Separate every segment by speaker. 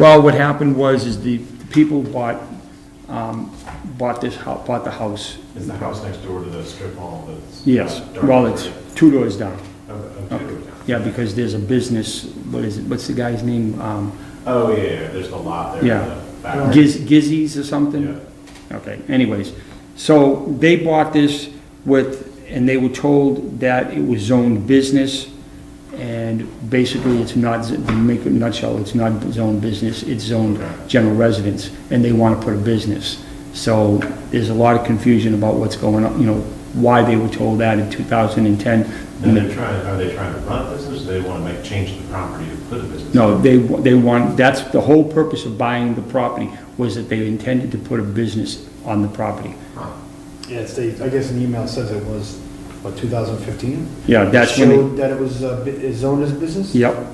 Speaker 1: Well, what happened was, is the the people bought, um, bought this, hou- bought the house,
Speaker 2: Is the house next door to the strip mall that's?
Speaker 1: yes,
Speaker 2: Dark
Speaker 1: well, it's
Speaker 2: green?
Speaker 1: two doors down.
Speaker 2: Oh, oh, two.
Speaker 1: Yeah, because there's a business, what is it, what's the guy's name? Um,
Speaker 2: Oh, yeah, yeah, there's a lot there.
Speaker 1: Yeah.
Speaker 2: in the back.
Speaker 1: Giz, Gizzies or something?
Speaker 2: Yeah.
Speaker 1: Okay, anyways, so they bought this with, and they were told that it was zoned business, and basically it's not, to make a nutshell, it's not zoned business, it's zoned general residence, and they want to put a business. So there's a lot of confusion about what's going on, you know, why they were told that in 2010.
Speaker 2: And they're trying, are they trying to run a business, or they want to make, change the property to put a business?
Speaker 1: No, they, they want, that's, the whole purpose of buying the property was that they intended to put a business on the property.
Speaker 3: Yeah, it's, they, I guess an email says it was, what, 2015?
Speaker 1: Yeah, that's when it,
Speaker 3: Showed that it was uh, bu- zoned as business?
Speaker 1: yep.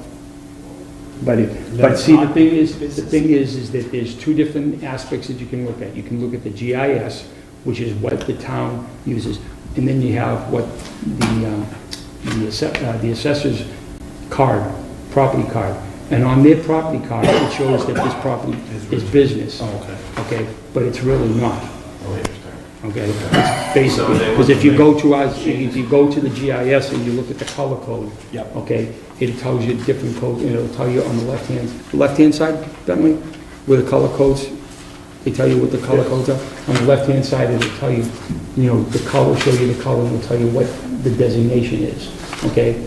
Speaker 1: But it, but see, the thing is, the thing is, is that there's two different aspects that you can look at. You can look at the GIS, which is what the town uses, and then you have what the, um, the asse- uh, the assessor's card, property card. And on their property card, it shows that this property is business,
Speaker 3: Oh,
Speaker 1: okay? But it's really not.
Speaker 2: Oh, interesting.
Speaker 1: Okay, it's basically,
Speaker 2: So they
Speaker 1: because if you
Speaker 2: wouldn't
Speaker 1: go to our, if you go to the GIS and you look at the color code.
Speaker 3: Yep.
Speaker 1: Okay, it tells you different code, and it'll tell you on the left-hand, left-hand side, Bentley, where the color codes, they tell you what the color codes are. On the left-hand side, it'll tell you, you know, the color, show you the color, and it'll tell you what the designation is, okay?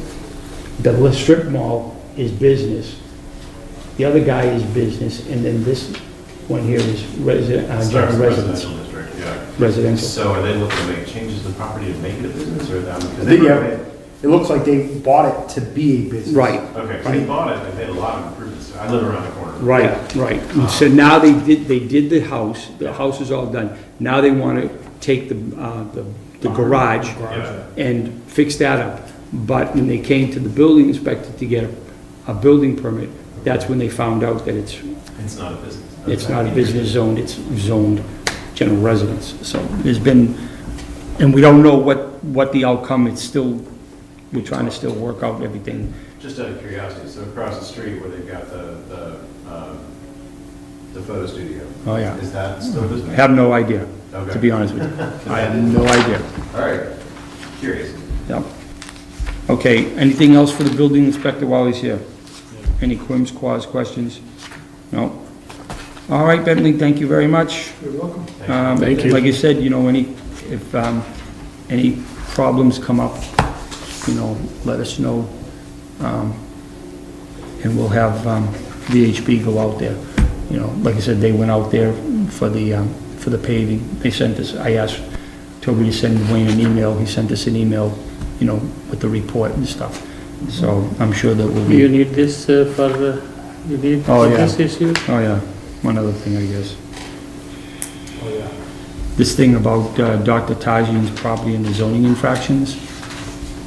Speaker 1: The li- strip mall is business, the other guy is business, and then this one here is resident, uh,
Speaker 2: Starts
Speaker 1: general
Speaker 2: the
Speaker 1: residence,
Speaker 2: Residential district, yeah.
Speaker 1: residential.
Speaker 2: So are they looking to make changes to the property to make it a business, or that? because they-
Speaker 3: Yeah, it looks like they bought it to be a business.
Speaker 1: Right,
Speaker 2: Okay, so they bought it, they made a lot of improvements, I live around the corner.
Speaker 1: right, right. And So now they did, they did the house, the house is all done. Now they want to take the, uh, the the garage
Speaker 2: Yeah.
Speaker 1: and fix that up. But when they came to the building inspector to get a, a building permit, that's when they found out that it's,
Speaker 2: It's not a business.
Speaker 1: it's not a business zone, it's zoned general residence. So there's been, and we don't know what, what the outcome, it's still, we're trying to still work out everything.
Speaker 2: Just out of curiosity, so across the street where they've got the, the, um, the photo studio.
Speaker 1: Oh, yeah.
Speaker 2: Is that still business?
Speaker 1: Have no idea, to
Speaker 2: Okay.
Speaker 1: be honest with you. I have no idea.
Speaker 2: All right, curious.
Speaker 1: Yep. Okay, anything else for the building inspector while he's here? Any quims, quas, questions? No? All right, Bentley, thank you very much.
Speaker 3: You're welcome.
Speaker 1: Um,
Speaker 3: Thank you.
Speaker 1: Like you said, you know, any, if, um, any problems come up, you know, let us know. Um, And we'll have, um, VHB go out there. You know, like I said, they went out there for the, um, for the paving. They sent us, I asked Toby to send Wayne an email. He sent us an email, you know, with the report and stuff. So I'm sure that we'll
Speaker 4: You
Speaker 1: be,
Speaker 4: need this uh, for, uh, you need
Speaker 1: Oh,
Speaker 4: for
Speaker 1: yeah.
Speaker 4: this issue?
Speaker 1: oh yeah, one other thing, I guess.
Speaker 3: Oh, yeah.
Speaker 1: this thing about uh, Dr. Tajian's property and the zoning infractions?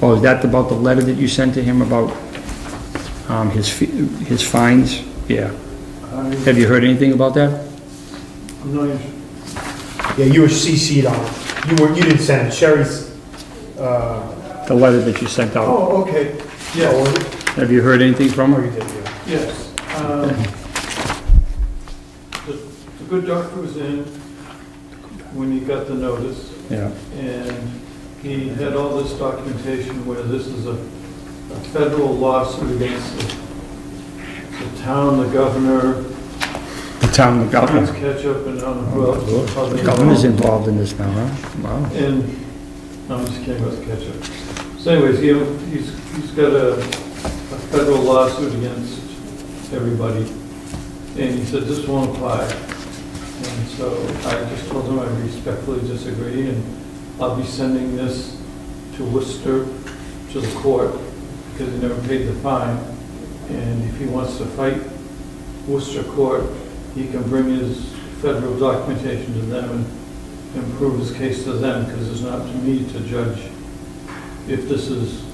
Speaker 1: Oh, is that about the letter that you sent to him about um, his, fi- his fines? Yeah.
Speaker 3: I'm
Speaker 1: Have you heard anything about that?
Speaker 3: I'm not even. Yeah, you were CC'd on it. You were, you didn't send it. Sherry's, uh.
Speaker 1: The letter that you sent out?
Speaker 3: Oh, okay. Yeah.
Speaker 1: Have you heard anything from
Speaker 3: Oh, you
Speaker 1: her?
Speaker 3: did, yeah.
Speaker 5: Yes. um, The the good doctor was in when he got the notice,
Speaker 1: Yeah.
Speaker 5: and he had all this documentation where this is a a federal lawsuit against the the town, the governor,
Speaker 1: The town, the
Speaker 5: Prince
Speaker 1: governor.
Speaker 5: Ketchup, and I don't know who else.
Speaker 1: The governor's involved in this now, huh? Wow.
Speaker 5: And, no, I'm just kidding about the ketchup. So anyways, he, he's, he's got a, a federal lawsuit against everybody, and he said this won't apply. And so I just told him I respectfully disagree, and I'll be sending this to Worcester, to the court, because he never paid the fine. And if he wants to fight Worcester court, he can bring his federal documentation to them and and prove his case to them, because it's not to me to judge if this is,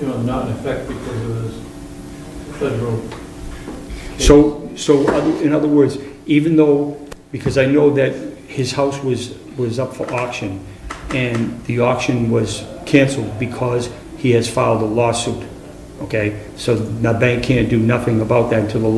Speaker 5: you know, not in effect because of his federal. case.
Speaker 1: So, so other- in other words, even though, because I know that his house was, was up for auction, and the auction was canceled because he has filed a lawsuit, okay? So the bank can't do nothing about that until the law.